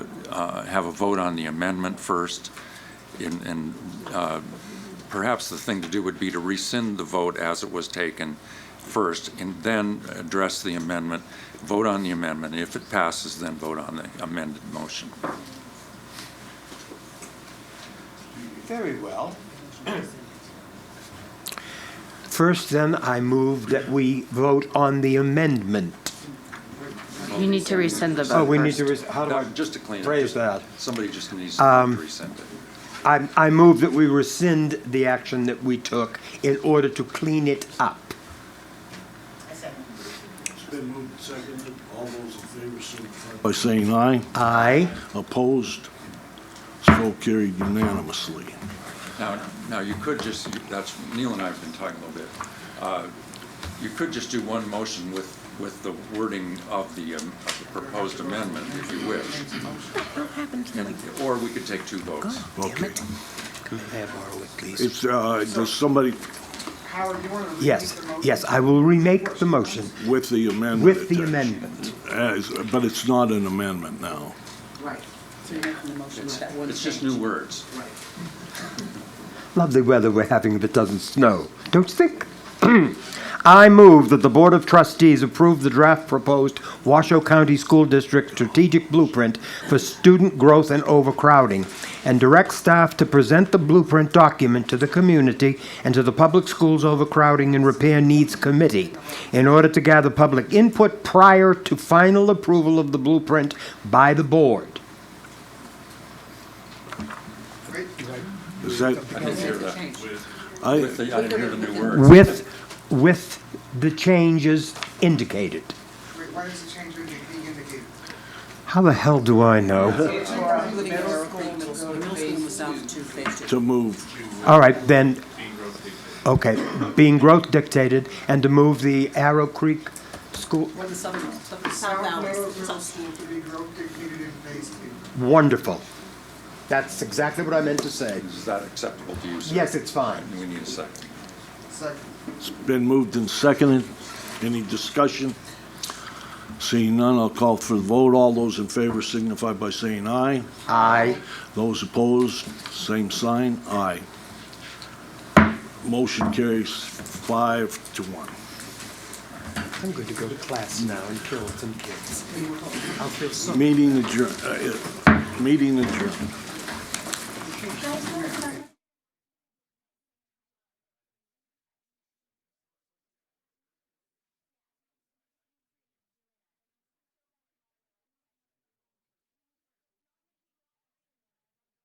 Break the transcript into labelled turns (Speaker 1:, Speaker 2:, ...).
Speaker 1: uh, have a vote on the amendment first, and- and uh, perhaps the thing to do would be to rescind the vote as it was taken first, and then address the amendment, vote on the amendment. If it passes, then vote on the amended motion.
Speaker 2: Very well.
Speaker 3: First, then, I move that we vote on the amendment.
Speaker 4: You need to rescind the vote
Speaker 3: Oh, we need to,
Speaker 4: first.
Speaker 3: res- how do I,
Speaker 1: Now, Just to clean it.
Speaker 3: phrase that. Um,
Speaker 1: Somebody just needs to rescind it.
Speaker 3: I, I move that we rescind the action that we took in order to clean it up.
Speaker 5: It's been moved and seconded. All those in favor signify by saying aye.
Speaker 3: Aye.
Speaker 5: Opposed? So carried unanimously.
Speaker 1: Now, now you could just, that's, Neil and I have been talking a little bit. Uh, You could just do one motion with, with the wording of the, um, of the proposed amendment, if you wish. And- Or we could take two votes.
Speaker 5: Okay.
Speaker 3: Have Warwick, please.
Speaker 5: It's, uh, does somebody
Speaker 2: Howard, you want to repeat
Speaker 3: Yes,
Speaker 2: the motion?
Speaker 3: yes, I will remake the motion
Speaker 5: with the amendment?
Speaker 3: with the
Speaker 5: attached?
Speaker 3: amendment.
Speaker 5: As- But it's not an amendment now.
Speaker 6: Right, so you're making the motion with that one
Speaker 1: It's just
Speaker 6: change.
Speaker 1: new words.
Speaker 6: Right.
Speaker 3: Lovely weather we're having that doesn't snow, don't you think? I move that the Board of Trustees approve the draft proposed Washoe County School District Strategic Blueprint for Student Growth and Overcrowding, and direct staff to present the blueprint document to the community and to the Public Schools Overcrowding and Repair Needs Committee in order to gather public input prior to final approval of the blueprint by the board.
Speaker 5: Is that,
Speaker 1: I didn't hear that.
Speaker 5: I,
Speaker 1: With the, I didn't hear the new words.
Speaker 3: With, with the changes indicated.
Speaker 2: Why does the change being indicated?
Speaker 3: How the hell do I know?
Speaker 6: I thought we were gonna go from middle school, middle school was down to two phase two.
Speaker 5: to move,
Speaker 3: All right, then, okay, being growth dictated and to move the Arrow Creek School,
Speaker 6: What the southern, the south
Speaker 2: South
Speaker 6: Valley,
Speaker 2: Meadows Middle
Speaker 6: south
Speaker 2: School to be growth dictated in phase two.
Speaker 3: wonderful. That's exactly what I meant to say.
Speaker 1: Is that acceptable to you, sir?
Speaker 3: Yes, it's fine.
Speaker 1: We need a second.
Speaker 2: Second.
Speaker 5: it's been moved and seconded. Any discussion? Seeing none, I'll call for the vote. All those in favor signify by saying aye.
Speaker 3: I,
Speaker 5: Those opposed, same sign, aye. Motion carries five to one.
Speaker 3: I'm going to go to class now and kill some kids. I'll feel so
Speaker 5: Uh, Meeting adjourned, meeting adjourned.
Speaker 7: Guys,